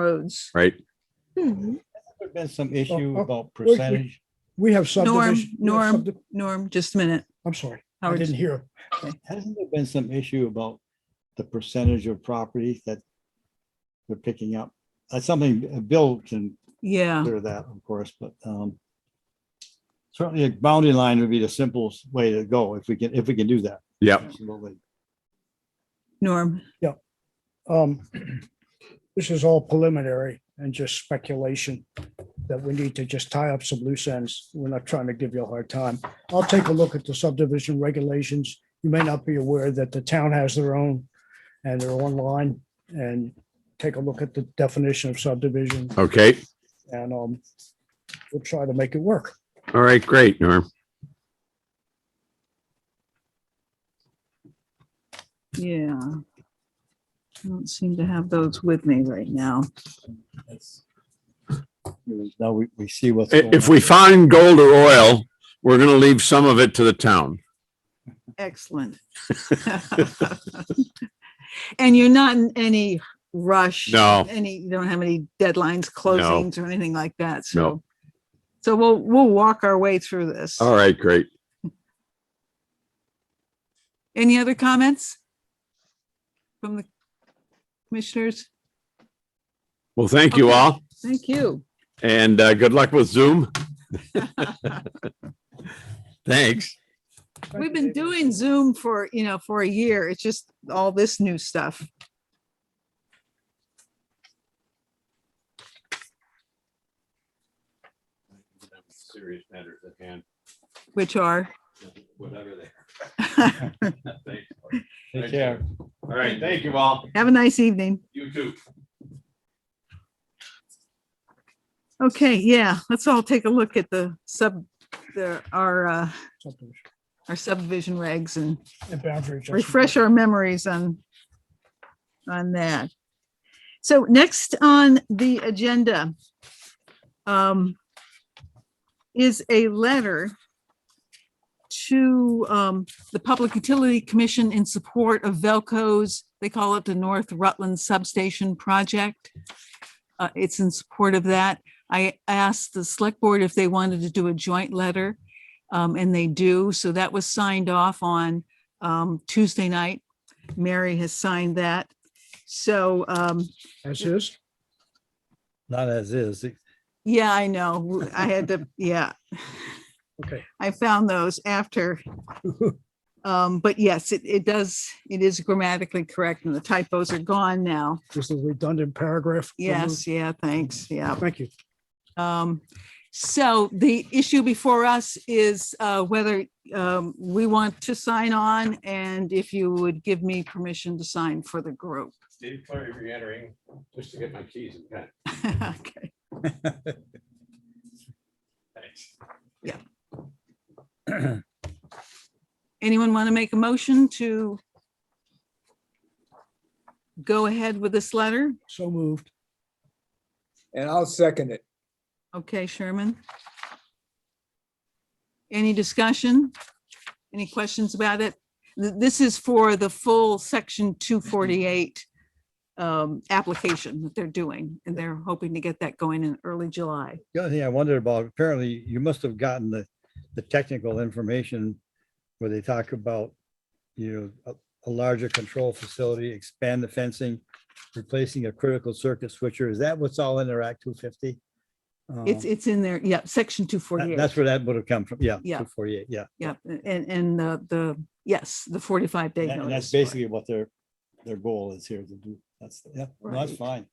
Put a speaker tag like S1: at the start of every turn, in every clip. S1: roads.
S2: right?
S3: There's been some issue
S4: oh,
S3: about
S4: wait, wait.
S3: percentage.
S4: We have
S1: Norm,
S4: subdivision. we have
S1: Norm,
S4: subdi-
S1: Norm, just a minute.
S4: I'm sorry, I
S1: Howard,
S4: didn't hear.
S3: Hasn't there been some issue about the percentage of property that they're picking up? That's something uh, Bill can
S1: yeah,
S3: clear that, of course, but um, certainly a boundary line would be the simplest way to go if we can, if we can do that.
S2: Yep.
S3: Absolutely.
S1: Norm,
S4: Um, this is all preliminary and just speculation that we need to just tie up some loose ends. We're not trying to give you a hard time. I'll take a look at the subdivision regulations. You may not be aware that the town has their own and they're online and take a look at the definition of subdivision
S2: Okay.
S4: and, um, we'll try to make it work.
S2: All right, great, Norm.
S1: yeah. I don't seem to have those with me right now.
S3: Now we, we see what's.
S2: I-
S3: going
S2: If
S3: on.
S2: we find gold or oil, we're gonna leave some of it to the town.
S1: Excellent. And you're not in any rush?
S2: No.
S1: Any, you don't have any deadlines, closings or anything like that, so.
S2: No.
S1: So we'll, we'll walk our way through this.
S2: All right, great.
S1: Any other comments? From the commissioners?
S2: Well, thank you
S1: Okay.
S2: all
S1: Thank you.
S2: and uh, good luck with Zoom. Thanks.
S1: We've been doing Zoom for, you know, for a year. It's just all this new stuff.
S2: Serious matters at hand,
S1: Which are,
S2: whatever they.
S1: have
S3: Take care.
S2: All right, thank you all.
S1: a nice evening.
S2: You too.
S1: Okay, yeah, let's all take a look at the sub, the, our, uh,
S4: Subdivision
S1: our subdivision regs and
S4: and boundary adjustment.
S1: refresh our memories on, on that. So next on the agenda um, is a letter to um, the Public Utility Commission in support of Velco's, they call it the North Rutland Substation Project. Uh, It's in support of that. I asked the select board if they wanted to do a joint letter, um, and they do. So that was signed off on um, Tuesday night. Mary has signed that. So, um,
S4: As is.
S3: Not as is.
S1: yeah, I know. I had to, yeah.
S4: Okay.
S1: I found those after. Um, but yes, it, it does, it is grammatically correct and the typos are gone now.
S4: Just a redundant paragraph. removed.
S1: Yes, yeah, thanks, yeah.
S4: Thank you.
S1: Um, so the issue before us is, uh, whether, um, we want to sign on and if you would give me permission to sign for the group.
S2: Dave Clary re-entering, just to get my keys and pen.
S1: Okay.
S2: Thanks.
S1: Anyone want to make a motion to go ahead with this letter?
S4: So moved.
S5: And I'll second it.
S1: Okay, Sherman. Any discussion? Any questions about it? Th- This is for the full section two forty-eight um, application that they're doing, and they're hoping to get that going in early July.
S3: The other thing I wondered about, apparently you must have gotten the, the technical information where they talk about, you know, a, a larger control facility, expand the fencing, replacing a critical circuit switcher. Is that what's all in their Act two fifty? Um,
S1: It's, it's in there, yeah, section two forty-eight,
S3: That's where that would have come from. Yeah.
S1: Yeah.
S3: Forty-eight, yeah.
S1: yeah, and, and the, the, yes, the forty-five day
S3: And that's
S1: notice.
S3: basically what their, their goal is here to do. That's, yeah, no, that's
S1: Right.
S3: fine.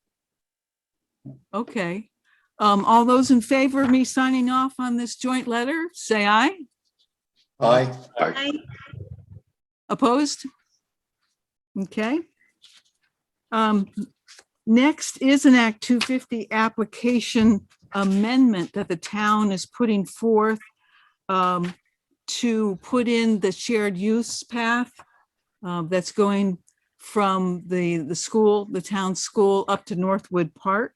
S1: Okay. Um, all those in favor of me signing off on this joint letter, say aye.
S6: Aye.
S1: Opposed? Okay. Um, next is an Act two fifty application amendment that the town is putting forth um, to put in the shared use path um, that's going from the, the school, the town school up to Northwood Park.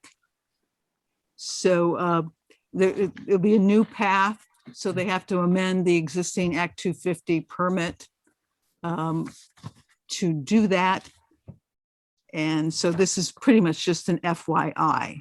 S1: So, uh, there, it- it'll be a new path, so they have to amend the existing Act two fifty permit um, to do that. And so this is pretty much just an FYI.